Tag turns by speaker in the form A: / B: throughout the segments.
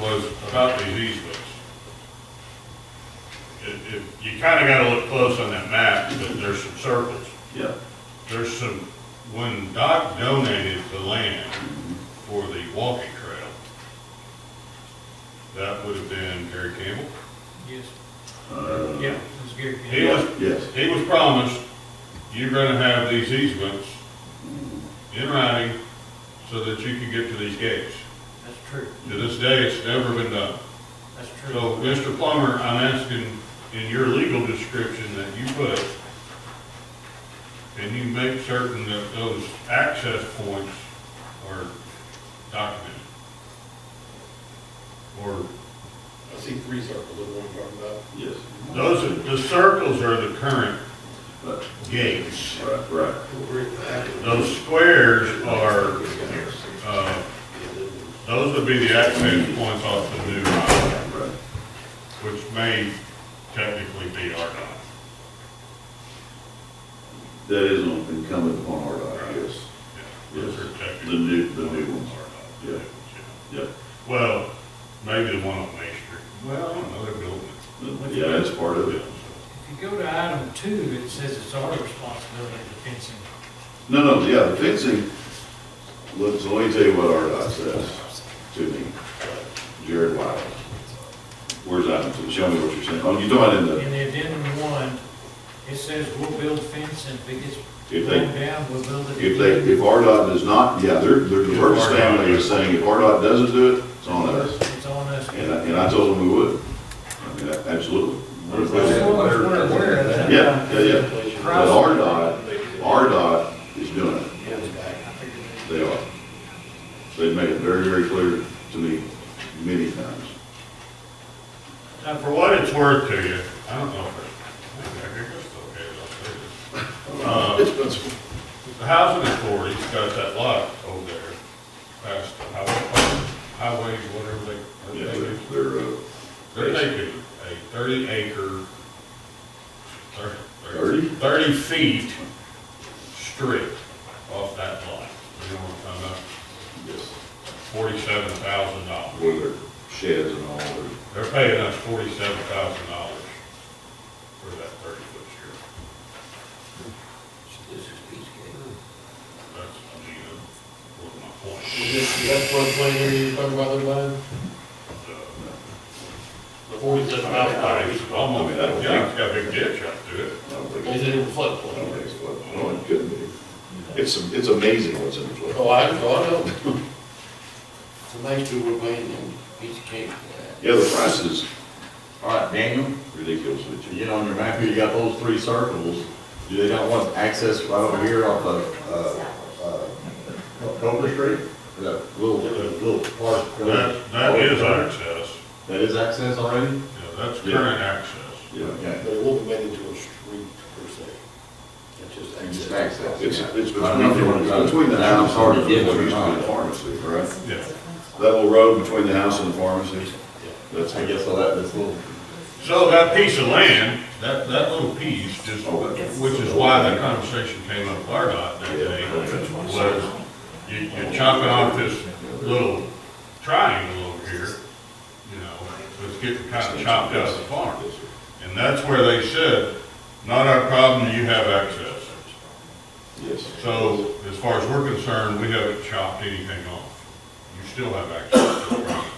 A: was about these easements. If, if, you kinda gotta look close on that map, because there's some circles.
B: Yeah.
A: There's some, when Doc donated the land for the walking trail, that would have been Gary Campbell.
C: Yes,
B: Uh,
C: yeah, it's Gary
A: He
C: Campbell.
A: was,
B: Yes,
A: he was promised, you're gonna have these easements in writing so that you can get to these gates.
C: That's true,
A: To this day, it's never been done.
C: that's true.
A: So, Mr. Plummer, I'm asking, in your legal description that you put, can you make certain that those access points are documented? Or,
D: I see three circles, is what I'm talking about.
B: yes.
A: those, are- the circles are the current
B: But-
A: gates.
B: Right, right.
A: Those squares are, uh, those would be the access points off the new highway,
B: Right.
A: which may technically be our dock.
B: That is incumbent upon our dock, yes.
A: Those
B: Yes.
A: are
B: The
A: technically
B: new, the new ones.
A: Yeah.
B: Yeah. Yep.
A: Well, maybe the one on Main Street. Well, I don't know, they're building
B: Yeah, that's part of it.
A: it.
C: If you go to item two, it says it's our responsibility to fencing.
B: No, no, yeah, the fencing, look, so let me tell you what our doc says to me. Jared Wild. Where's that? Show me what you're saying. Oh, you talking about in the,
C: In the addendum one, it says we'll build fence and if it gets
B: If they-
C: blown down, we'll build it.
B: if they, if RDOT does not, yeah, they're, they're, the first family is saying, if RDOT doesn't do it, it's on us.
C: It's on us.
B: And I, and I told them we would. I mean, a- absolutely.
C: That's what I was wondering, where is that?
B: Yeah, yeah, yeah. But RDOT, RDOT is doing it.
C: I figured it-
B: They are. They've made it very, very clear to me many times.
A: Now, for what it's worth to you, I don't know if it's, I think it's okay, I'll say this. Uh, The housing authority's got that lot over there, past the highway, highway, whatever they, what
B: Yeah,
A: they
B: they're,
A: do.
B: they're, uh,
A: They're taking a thirty acre, thir-
B: Thirty?
A: thirty, thirty feet strip off that lot. You know what I'm talking about?
B: yes,
A: Forty-seven thousand dollars.
B: where their sheds and all, their-
A: They're paying us forty-seven thousand dollars for that thirty foot strip.
E: This is Peachtree.
A: That's, you know, what my point
D: Is
A: is.
D: this, that floodplain area you're talking about, that line?
A: uh,
D: The forty-seven thousand dollars?
A: It's almost, yeah, it's got a big ditch out through it.
B: I don't think,
D: Is it in the
B: I don't
D: floodplain?
B: think it's what, no, it couldn't be. It's, it's amazing what's in the flood.
D: Oh, I, oh, I know. So thanks to we're paying them, each cake for
B: Yeah, the price is
E: All right, Daniel,
B: ridiculous, but you-
E: you know, on your map here, you got those three circles. Do they not want access right over here off of, uh, uh, Cobra Street? That little, little park.
A: That,
B: Oh,
A: that is access,
E: That is access already?
A: yeah, that's current access.
B: yeah.
E: Yeah.
D: But it won't be made into a street per se. It's just
E: And just
D: access.
E: access.
B: It's,
E: yeah.
B: it's
E: I don't know if you wanna
B: between,
E: try to-
B: it's between the house
E: That's
B: and
E: already
B: what
E: did
B: used
E: what
B: to be
E: you're
B: the
E: trying.
B: pharmacy, right?
A: Yeah.
B: That little road between the house and the pharmacy, that's,
E: I guess all that, this little,
A: So that piece of land, that, that little piece, just,
B: Oh, that's-
A: which is why that conversation came up with RDOT that day, was you, you're chopping off this little triangle over here, you know, it's getting kind of chopped out of the farm. And that's where they said, not our problem, you have access.
B: yes.
A: So as far as we're concerned, we haven't chopped anything off. You still have access to the property.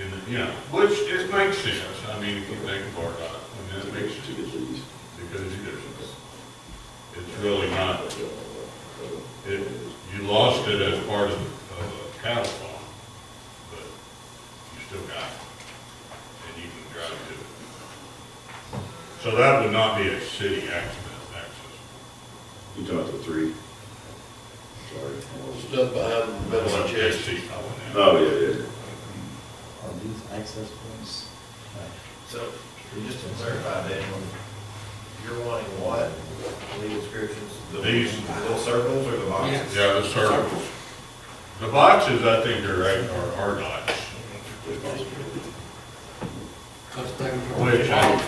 A: And, you know, which it makes sense. I mean, if you think of RDOT, I mean, it makes sense because there's, it's really not, it, you lost it as part of, of a cattle farm, but you still got it. And you can drive to it. So that would not be a city access, access.
B: You talked to three. Sorry.
D: Stuff behind the
A: That's
D: metal
A: what
D: chest.
A: JC calling it.
B: Oh, yeah, yeah.
E: are these access points?
F: So, just to clarify, Daniel, you're wanting what, legal descriptions? The-
A: These.
F: The little circles or the boxes?
A: Yeah, the circles. The boxes, I think are right, are, are dots,
D: Cause they were-
A: which I,